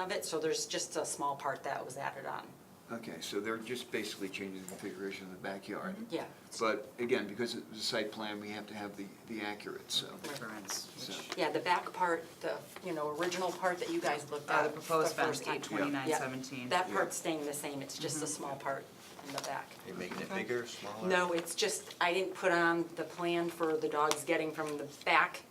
of it, so there's just a small part that was added on. Okay, so they're just basically changing the configuration of the backyard. Yeah. But again, because it's a site plan, we have to have the, the accurate, so. Currents, So- which- Yeah, the back part, the, you know, original part that you guys looked Uh, at. the proposed fence, first time. eight twenty-nine Yeah. seventeen. Mm-hmm. That Yeah. part's staying the same, it's just a small part in the back. Are you making it Okay. bigger, smaller? No, it's just, I didn't put on the plan for the dogs getting from the back,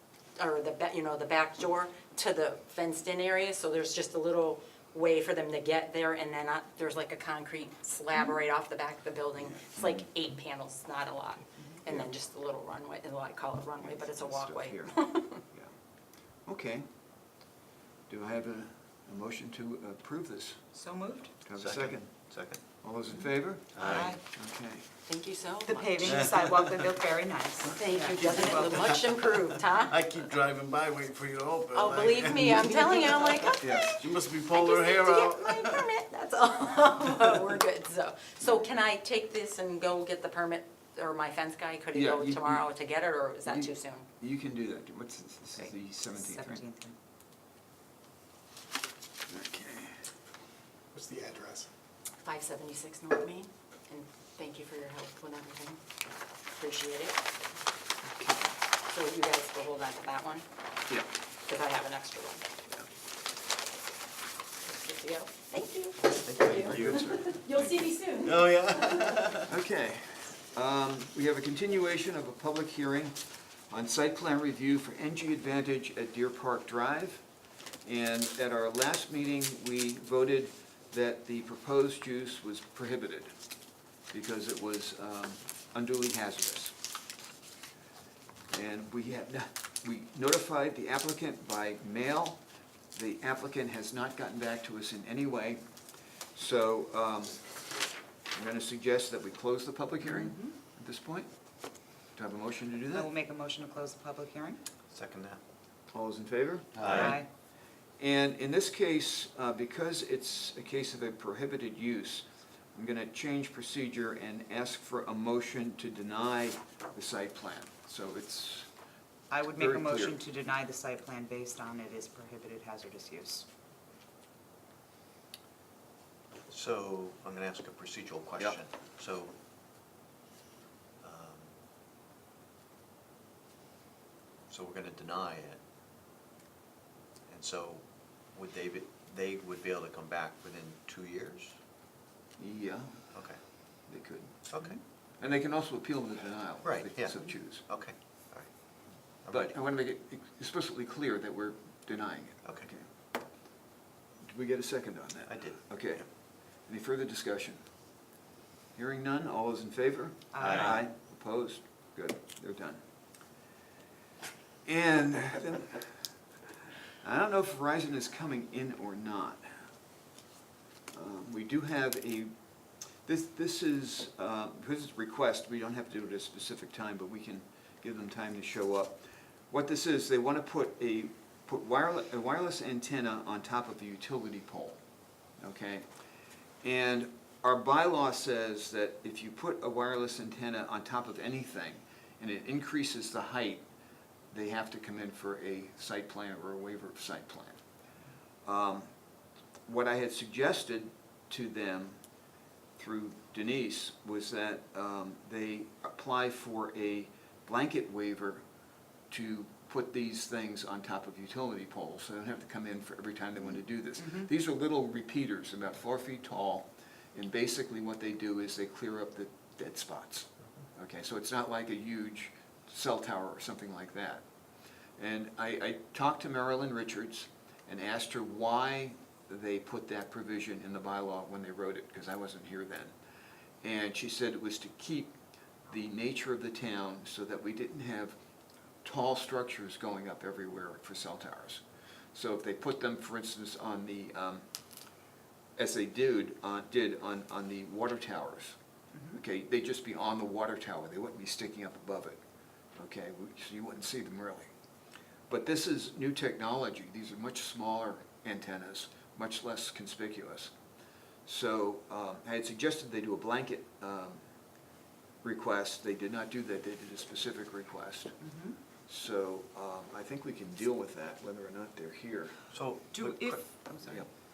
or the, ba- you know, the back door to the fenced-in area, so there's just a little way for them to get there, and then uh, there's like a concrete slab right off the back of the building. It's like eight panels, not a lot. And then just a little runway, and I call it runway, but it's a Stuff walkway. here. Yeah. Okay. Do I have a, a motion to approve this? So moved? Do I have a second? Second. All those in favor? Aye. Okay. Thank you so much. The paving, the sidewalk, they look very nice. Thank you, Yeah. doesn't it look much improved, huh? I keep driving by waiting for you to open. Oh, like, believe me, I'm telling you, I'm like, okay. Yes. She must be I pulling her just need hair to out. get my permit, that's all. But We're good, so, so can I take this and go get the permit, or my fence guy, could he Yeah, go you- you- tomorrow to get it, or is that you- too soon? You can do that. What's, this This is the seventeenth, right? Seventeenth. Okay. What's the address? Five seventy-six North Main, and thank you for your help with everything, appreciate it. So you guys will hold on to that one, Yeah. because I have an extra one. Good to go, thank you. Very good, sir. You'll see me soon. Oh, yeah. Okay, um, we have a continuation of a public hearing on site plan review for NG Advantage at Deer Park Drive. And at our last meeting, we voted that the proposed use was prohibited because it was um, unduly hazardous. And we have, not- we notified the applicant by mail. The applicant has not gotten back to us in any way. So, um, I'm going to suggest that we close the public hearing at this point. Do I have a motion to do I that? will make a motion to close the public hearing. Second that. All those in favor? And in this case, uh, because it's a case of a prohibited use, I'm going to change procedure and ask for a motion to deny the site plan. So it's, I would make a Very clear. motion to deny the site plan based on it is prohibited hazardous use. So I'm going to ask a procedural question. So um, so we're going to deny it. And so would they, be- they would be able to come back within two years? yeah, Okay, they could. okay, And they can also appeal the denial. Right, If they yeah. so choose. okay, all right. I'm But ready. I want to make it explicitly clear that we're denying it. Okay. Did we get a second on that? I did. Okay. Any further discussion? Hearing none, all those in favor? Aye. Opposed? Good, they're done. And then- I don't know if Verizon is coming in or not. Um, We do have a, this, this is, uh, because it's a request, we don't have to do it at a specific time, but we can give them time to show up. What this is, they want to put a, put wireless, a wireless antenna on top of the utility pole, okay? And our bylaw says that if you put a wireless antenna on top of anything, and it increases the height, they have to come in for a site plan or a waiver of site plan. Um, What I had suggested to them through Denise was that um, they apply for a blanket waiver to put these things on top of utility poles, so they don't have to come in for every time they want to do this. These are little repeaters, about four feet tall, and basically what they do is they clear up the dead spots. Okay, so it's not like a huge cell tower or something like that. And I, I talked to Marilyn Richards and asked her why they put that provision in the bylaw when they wrote it, because I wasn't here then. And she said it was to keep the nature of the town so that we didn't have tall structures going up everywhere for cell towers. So if they put them, for instance, on the, um, as they did, uh, did on, on the water towers, Mm-hmm, okay, they'd just be on the water tower, they wouldn't be sticking up above it, okay, so you wouldn't see them really. But this is new technology, these are much smaller antennas, much less conspicuous. So, um, I had suggested they do a blanket, um, request, they did not do that, they did a specific request. mm-hmm. So, um, I think we can deal with that, whether or not they're here. So. Do but- if, I'm sorry, Yep.